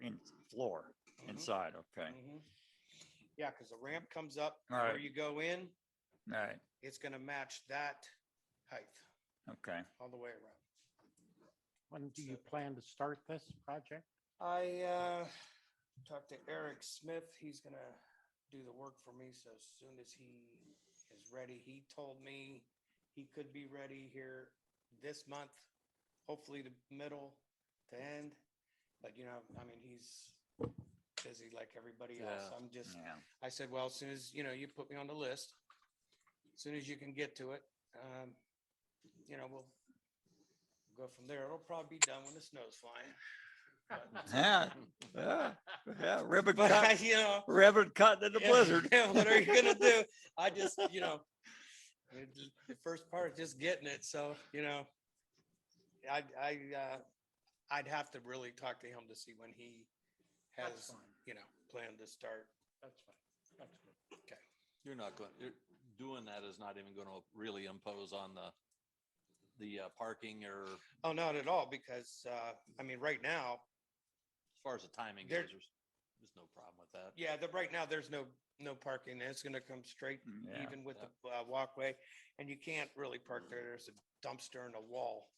in floor Mm-hmm. inside, okay, Mhm. Yeah, because the ramp comes up where Alright. you go in, all right, it's gonna match that height okay. all the way around. When do you plan to start this project? I uh, talked to Eric Smith. He's gonna do the work for me. So as soon as he is ready, he told me he could be ready here this month, hopefully the middle to end. But you know, I mean, he's busy like everybody else. Yeah. I'm just, Yeah, I said, well, as soon as, you know, you put me on the list, as soon as you can get to it, um, you know, we'll go from there. It'll probably be done when the snow's flying. But- yeah, yeah, yeah, ribbon But I, cut, you know. ribbon cut in the yeah, blizzard. yeah, What are you gonna do? I just, you know, it j- the first part is just getting it. So, you know, I, I, uh, I'd have to really talk to him to see when he That's has, fine. you know, planned to start. That's fine. That's good. You're not going, you're, doing that is not even gonna really impose on the, the uh, parking or as Oh, not at all, because, uh, I mean, right now, far as the timing goes, There- there's, there's no problem with that. yeah, the, right now, there's no, no parking. It's gonna come straight Mm, Yeah, even with the uh, walkway, and you can't really park there. There's a dumpster and a wall.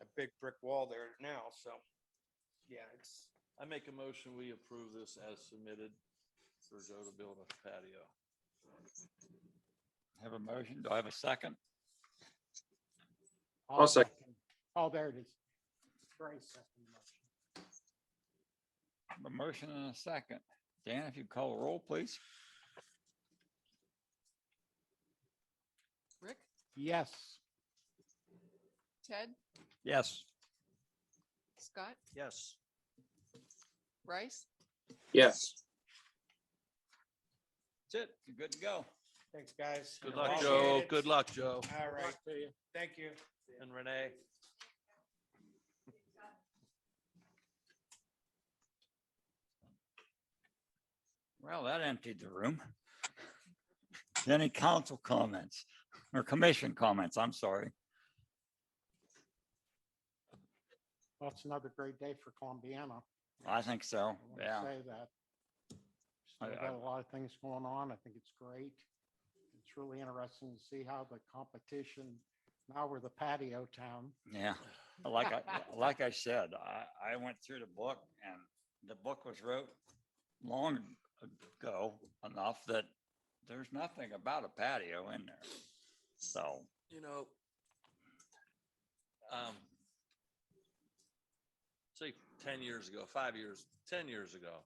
A big brick wall there now, so, yeah, it's, I make a motion, we approve this as submitted for Joe to build a patio. Have a motion, do I have a second? I'll second. Oh, there it is. Bryce seconded the motion. A motion and a second. Dan, if you call a roll, please. Rick, Yes, Ted, Yes. Scott, Yes. Bryce, Yes. That's it, you're good to go. thanks, guys. Good luck, Appreciate Joe. it. Good luck, Joe. All right, to you. thank you. And Renee. Well, that emptied the room. Any council comments or commission comments? I'm sorry. Well, it's another great day for Columbiana. I think so. I wanna Yeah, Say that. I- Still I- got a lot of things going on. I think it's great. It's really interesting to see how the competition, now we're the patio town. yeah. Like I, like I said, I, I went through the book and the book was wrote long ago enough that there's nothing about a patio in there. So, You know. Um. Say ten years ago, five years, ten years ago.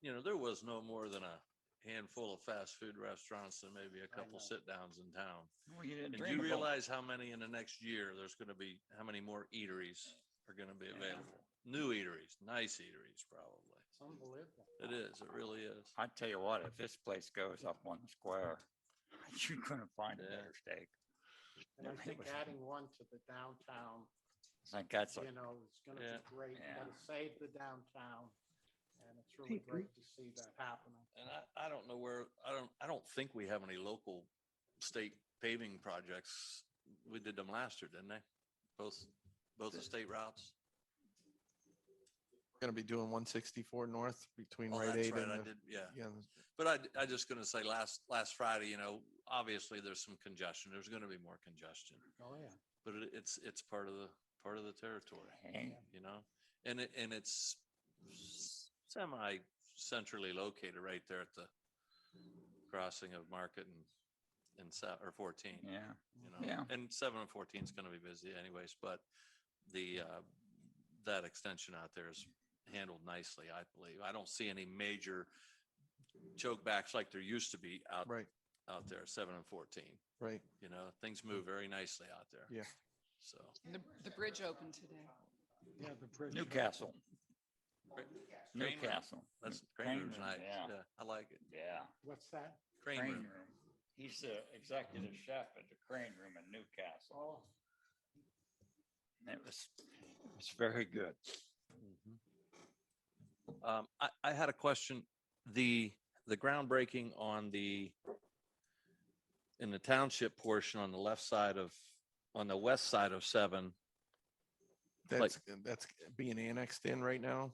You know, there was no more than a handful of fast food restaurants and maybe a know. couple sit downs in town. well, you didn't And dream you of going- realize how many in the next year, there's gonna be, how many more eateries are gonna be Yeah. available? New eateries, nice eateries, probably. It's unbelievable. It is, it really is. I tell you what, if this place goes up one square, you couldn't find a Yeah. better steak. And I Yeah, it think was- adding one to the downtown, I think that's a you know, is gonna Yeah. be great. You Yeah. gotta save the downtown. And it's really great to see that happening. And I, I don't know where, I don't, I don't think we have any local state paving projects. We did them last year, didn't they? Both, both the state routes. Gonna be doing one sixty-four north between Oh, right that's aid right, and I the, did, yeah. yeah, But I, I just gonna say last, last Friday, you know, obviously there's some congestion. There's gonna be more congestion. Oh, yeah. But it, it's, it's part of the, part of the territory, Hey, you know? And it, and it's semi centrally located right there at the crossing of Market and, and South, or fourteen. yeah, you Yeah. know, and seven and fourteen is gonna be busy anyways, but the, uh, that extension out there is handled nicely, I believe. I don't see any major choke backs like there used to be out, right, out there, seven and fourteen, right. you know, things move very nicely out there. Mm. Yeah. So, the, the bridge opened today. Yeah, the bridge. Newcastle, Cra- Crane Room. Newcastle. that's, New- Crane Room's Room, nice, Yeah, yeah, I like it. yeah. What's that? Crane Room, Room. He's the executive chef at the Crane Room in Newcastle. Oh, And It was, it was very good. um, I, I had a question, the, the groundbreaking on the in the township portion on the left side of, on the west side of seven, That's, that's being annexed in right now.